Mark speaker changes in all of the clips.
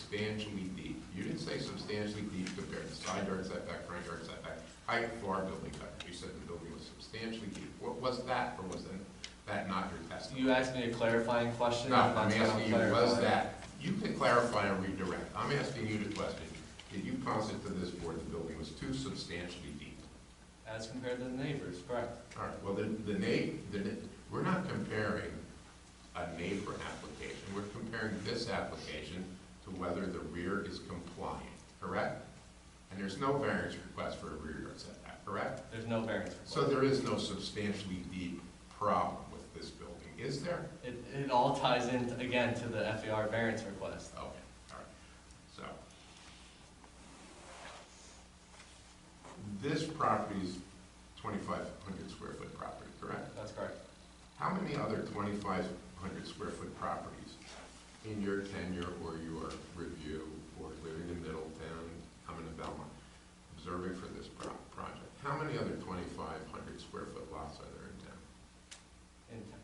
Speaker 1: substantially deep. You didn't say substantially deep compared to side yard setback, front yard setback, height for our building height. You said the building was substantially deep. What was that, or was that, that not your testimony?
Speaker 2: You asked me a clarifying question.
Speaker 1: No, I'm
Speaker 2: that's what
Speaker 1: asking you, was
Speaker 2: clarifying.
Speaker 1: that, you can clarify and redirect. I'm asking you the question. Did you posit to this board the building was too substantially deep?
Speaker 2: As compared to the neighbors, correct.
Speaker 1: All right, well, the, the na, the, na- we're not comparing a neighbor application, we're comparing this application to whether the rear is compliant, correct? And there's no variance request for a rear yard setback, correct?
Speaker 2: There's no variance
Speaker 1: So
Speaker 2: request.
Speaker 1: there is no substantially deep problem with this building, is there?
Speaker 2: It, it all ties in, again, to the FAR variance request.
Speaker 1: Okay, all right, so. This property is twenty-five hundred square foot property, correct?
Speaker 2: That's correct.
Speaker 1: How many other twenty-five hundred square foot properties in your tenure or your review or living in Middletown, I'm in Belmont, observing for this pro- project, how many other twenty-five hundred square foot lots are there in town?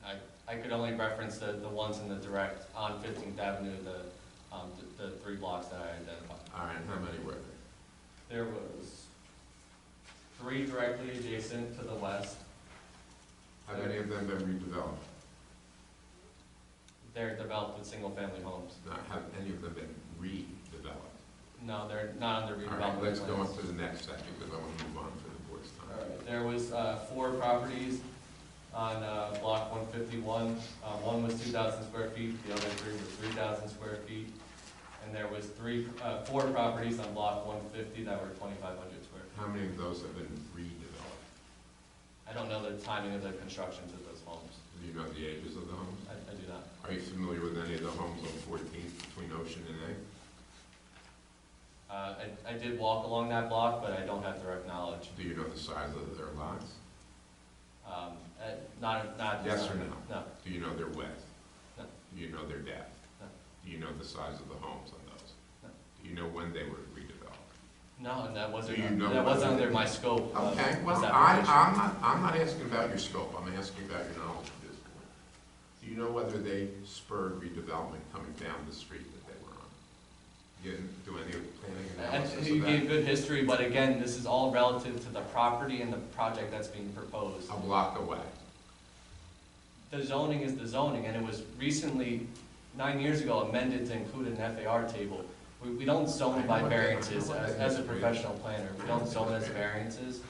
Speaker 2: And I, I could only reference the, the ones in the direct on Fifteenth Avenue, the, um, the, the three blocks that I identified.
Speaker 1: All right, and how many were there?
Speaker 2: There was three directly adjacent to the west.
Speaker 1: Have any of them been redeveloped?
Speaker 2: They're developed with single-family homes.
Speaker 1: Not, have any of them been redeveloped?
Speaker 2: No, they're not under
Speaker 1: All right,
Speaker 2: redevelopment.
Speaker 1: let's go
Speaker 2: plans.
Speaker 1: on to the next section, because I want to move on for the board's time.
Speaker 2: Alright, There was uh, four properties on uh, block 151. Uh, One was 2,000 square feet, the other three were 3,000 square feet. And there was three, uh, four properties on block 150 that were 2,500 square. feet.
Speaker 1: How many of those have been redeveloped?
Speaker 2: I don't know the timing of the constructions of those homes.
Speaker 1: Do you know the ages of the homes?
Speaker 2: I I do not.
Speaker 1: Are you familiar with any of the homes on Fourteenth between Ocean and A?
Speaker 2: Uh, I- I did walk along that block, but I don't have direct knowledge.
Speaker 1: Do you know the size of their lots?
Speaker 2: Um, uh, Not, not.
Speaker 1: Yes or no?
Speaker 2: No.
Speaker 1: Do you know their width?
Speaker 2: No.
Speaker 1: Do you know their depth?
Speaker 2: No.
Speaker 1: Do you know the size of the homes on those?
Speaker 2: No.
Speaker 1: Do you know when they were redeveloped?
Speaker 2: No, and that wasn't,
Speaker 1: Do you know
Speaker 2: that wasn't
Speaker 1: whether-
Speaker 2: under my scope. of
Speaker 1: Okay,
Speaker 2: this
Speaker 1: well, I,
Speaker 2: application.
Speaker 1: I'm not, I'm not asking about your scope, I'm asking about your knowledge of this point. Do you know whether they spurred redevelopment coming down the street that they were on? You didn't do any of the planning
Speaker 2: And
Speaker 1: analysis
Speaker 2: you
Speaker 1: of
Speaker 2: gave
Speaker 1: that?
Speaker 2: good history, but again, this is all relative to the property and the project that's being proposed.
Speaker 1: A block away.
Speaker 2: The zoning is the zoning, and it was recently, nine years ago, amended to include an FAR table. We, we don't zone by variances as, as a professional planner, we don't zone as variances.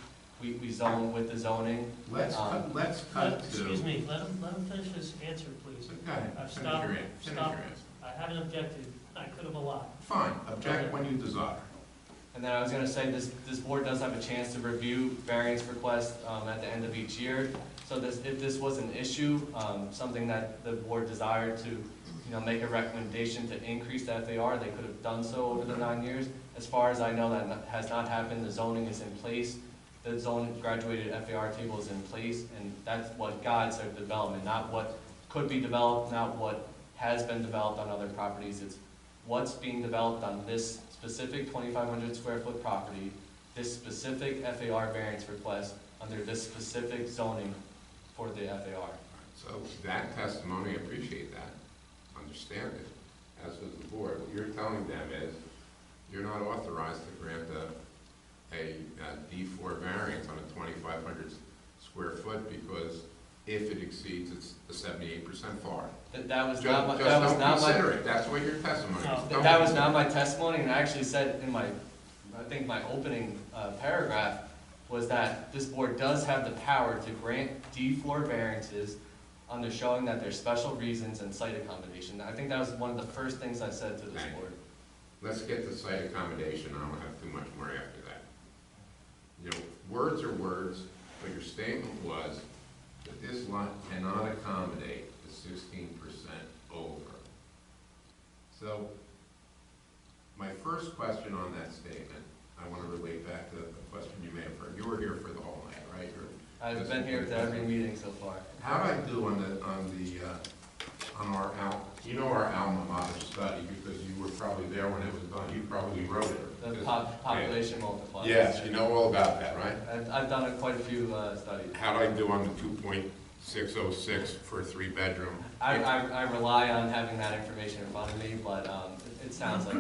Speaker 2: We, we zone with the zoning.
Speaker 1: Let's,
Speaker 2: Um,
Speaker 1: cut- let's
Speaker 3: Let-
Speaker 1: cut to.
Speaker 3: Excuse me, let him, let him finish his answer, please.
Speaker 1: Okay,
Speaker 3: I've
Speaker 1: finish your
Speaker 3: stopped-
Speaker 1: answer, finish your
Speaker 3: stopped.
Speaker 1: answer.
Speaker 3: I haven't objected, I could have a lot.
Speaker 1: Fine, object when you desire.
Speaker 2: And then I was gonna say, this, this board does have a chance to review variance requests, um, at the end of each year. So this, if this was an issue, um, something that the board desired to, you know, make a recommendation to increase the FAR, they could have done so over the nine years. As far as I know, that not- has not happened, the zoning is in place, the zone graduated FAR table is in place, and that's what guides their development, not what could be developed, not what has been developed on other properties. It's what's being developed on this specific twenty-five hundred square foot property, this specific FAR variance request under this specific zoning for the FAR.
Speaker 1: So that testimony, I appreciate that, understand it, as does the board. What you're telling them is, you're not authorized to grant a, a D four variance on a twenty-five hundred square foot because if it exceeds, it's the seventy-eight percent FAR.
Speaker 2: That, that was
Speaker 1: Just
Speaker 2: not my, that was
Speaker 1: just don't
Speaker 2: not my,
Speaker 1: consider it, that's what your testimony is.
Speaker 3: No.
Speaker 1: Don't
Speaker 2: that- that was
Speaker 1: consider
Speaker 2: not
Speaker 1: it.
Speaker 2: my testimony, and I actually said in my, I think my opening, uh, paragraph was that this board does have the power to grant D four variances under showing that there's special reasons and site accommodation. I think that was one of the first things I said to this
Speaker 1: Right.
Speaker 2: board.
Speaker 1: Let's get the site accommodation, I don't have too much more after that. You know, words are words, but your statement was that this lot cannot accommodate the sixteen percent over. So, my first question on that statement, I wanna relate back to a question you may have heard, you were here for the whole night, right? Or-
Speaker 2: I've been here to every meeting so far.
Speaker 1: How'd I do on the, on the, uh, on our al, you know our alma mater study, because you were probably there when it was done, you probably wrote it.
Speaker 2: The
Speaker 1: Because-
Speaker 2: pop- population multipliers.
Speaker 1: Yes, you know all about that, right?
Speaker 2: I've, I've done a- quite a few uh, studies.
Speaker 1: How'd I do on the two point six oh six for a three-bedroom?
Speaker 2: I, I, I rely on having that information in front of me, but um, it- it sounds like